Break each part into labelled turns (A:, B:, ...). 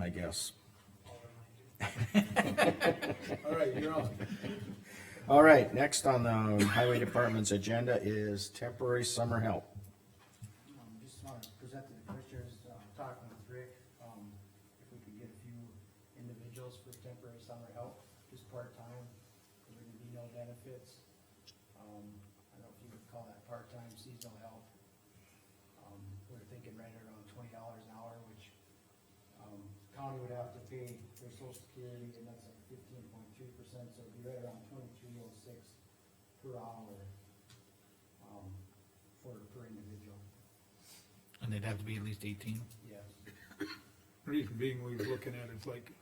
A: I guess.
B: All right, you're on.
A: All right, next on the highway department's agenda is temporary summer help.
C: Um, just want to present to the commissioners, um, talking with Rick, um, if we could get a few individuals for temporary summer help, just part-time, there would be no benefits. Um, I don't know if you would call that part-time seasonal help. Um, we're thinking right around twenty dollars an hour, which, um, county would have to pay their social security, and that's like fifteen point three percent, so it'd be right around twenty-three oh six per hour, um, for, per individual.
D: And they'd have to be at least eighteen?
C: Yes.
B: Reason being, we were looking at is like,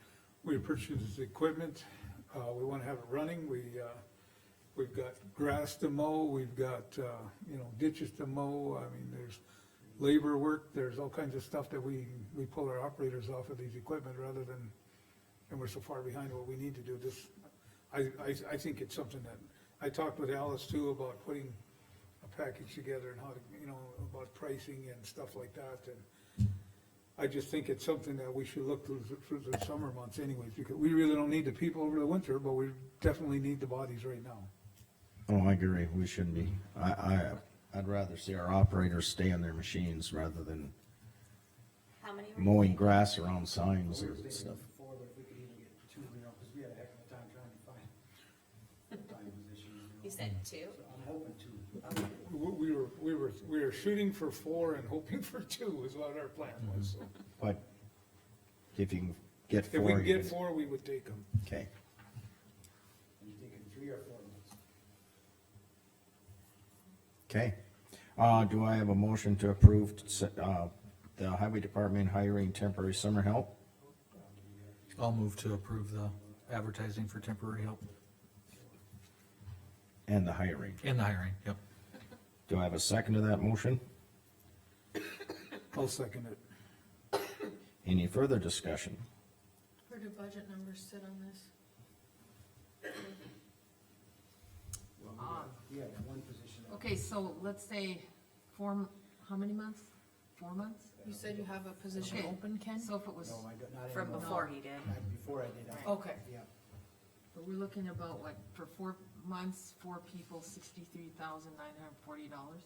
B: we purchased this equipment, uh, we wanna have it running, we, uh, we've got grass to mow, we've got, uh, you know, ditches to mow, I mean, there's labor work, there's all kinds of stuff that we, we pull our operators off of these equipment rather than, and we're so far behind what we need to do, this, I, I, I think it's something that, I talked with Alice too about putting a package together and how to, you know, about pricing and stuff like that, and I just think it's something that we should look through, through the summer months anyways, because we really don't need the people over the winter, but we definitely need the bodies right now.
A: Oh, I agree, we shouldn't be, I, I, I'd rather see our operators stay on their machines rather than
E: How many? were-
A: mowing grass around signs
C: We were
A: and
C: thinking
A: stuff.
C: before, but if we could even get two, you know, because we had a heck of a time trying to find full-time positions. you know.
E: You said two?
C: So I'm hoping two.
B: We, we were, we were, we were shooting for four and hoping for two is what our plan was. So
A: But if you can get
B: If we
A: four,
B: can
A: you
B: get
A: can-
B: four, we would take them.
A: okay,
C: I'm thinking three or four months.
A: okay. Uh, do I have a motion to approve, uh, the highway department hiring temporary summer help?
D: I'll move to approve the advertising for temporary help
A: And the hiring,
D: and the hiring, yep.
A: do I have a second to that motion?
B: I'll second it.
A: Any further discussion?
F: Where do budget numbers sit on this?
C: Well, we had- We had one position. that-
G: Okay, so let's say four, m- how many months? Four months?
F: You said you have a position
G: Okay.
F: open, Ken?
G: So if it was, Oh.
C: No, I don't, not
E: From
C: anymore.
E: before he did.
C: Not Before I did, I.
F: Okay.
C: Yeah,
G: but we're looking about what, for four months, four people, sixty-three thousand nine hundred forty dollars?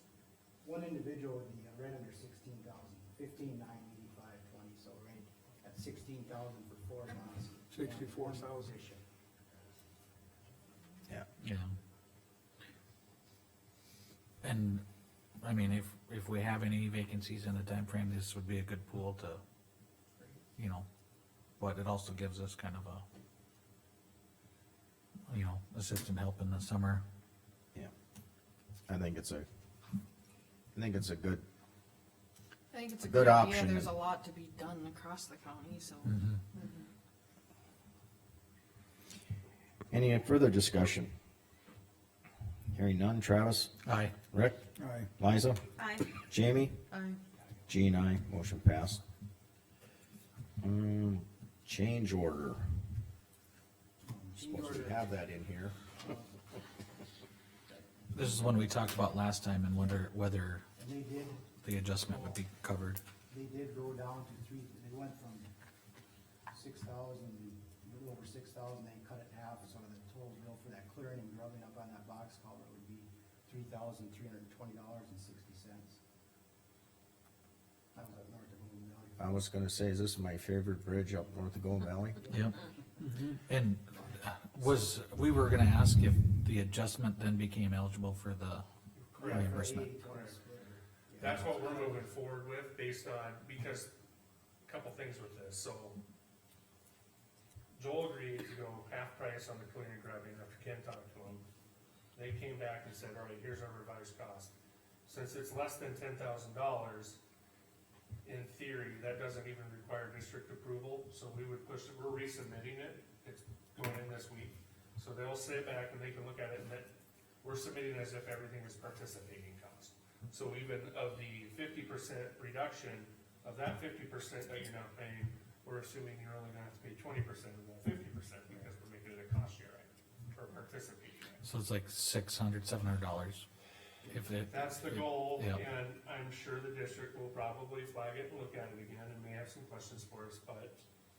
C: one individual would be uh, right under sixteen thousand, fifteen nine eighty-five twenty, so right at sixteen thousand for four months. one- one
B: 64,000.
C: position.
A: Yeah.
D: Yeah. And, I mean, if, if we have any vacancies in the timeframe, this would be a good pool to, you know, but it also gives us kind of a, you know, assistant help in the summer.
A: Yeah. I think it's a, I think it's a good,
F: I think it's
A: a
F: a
A: good
F: good idea,
A: option.
F: there's a lot to be done across the county, so.
A: any further discussion? Hearing none, Travis,
D: Aye.
A: Rick,
B: Aye.
A: Liza,
E: I,
A: Jamie,
F: I,
A: Jean, I, motion passed. Um, change order, supposed to have that in here.
D: This is one we talked about last time and wonder whether
C: And they did
D: the adjustment would be covered.
C: they did go down to three, they went from six thousand, a little over six thousand, they cut it in half, so the total bill for that clearing and grubbing up on that box culvert would be three thousand three hundred and twenty dollars and sixty cents. That was up north of Moon Valley.
A: I was gonna say, is this my favorite bridge up north of Golden Valley?
D: Yep. And uh, was, we were gonna ask if the adjustment then became eligible for the reimbursement.
H: That's what we're moving forward with based on, because a couple things with this, so. Joel agreed to go half price on the cleaning and grubbing after Ken talked to him. They came back and said, alright, here's our revised cost. Since it's less than ten thousand dollars, in theory, that doesn't even require district approval, so we would push, it. we're resubmitting it, it's going in this week. So they'll sit back and they can look at it and that, we're submitting as if everything is participating cost. So even of the fifty percent reduction, of that fifty percent that you're not paying, we're assuming you're only gonna have to pay twenty percent of that fifty percent because we're making it a cost share item or participating. item.
D: So it's like six hundred, seven hundred dollars. If it,
H: That's the goal,
D: Yeah.
H: and I'm sure the district will probably flag it and look at it again and may have some questions for us, but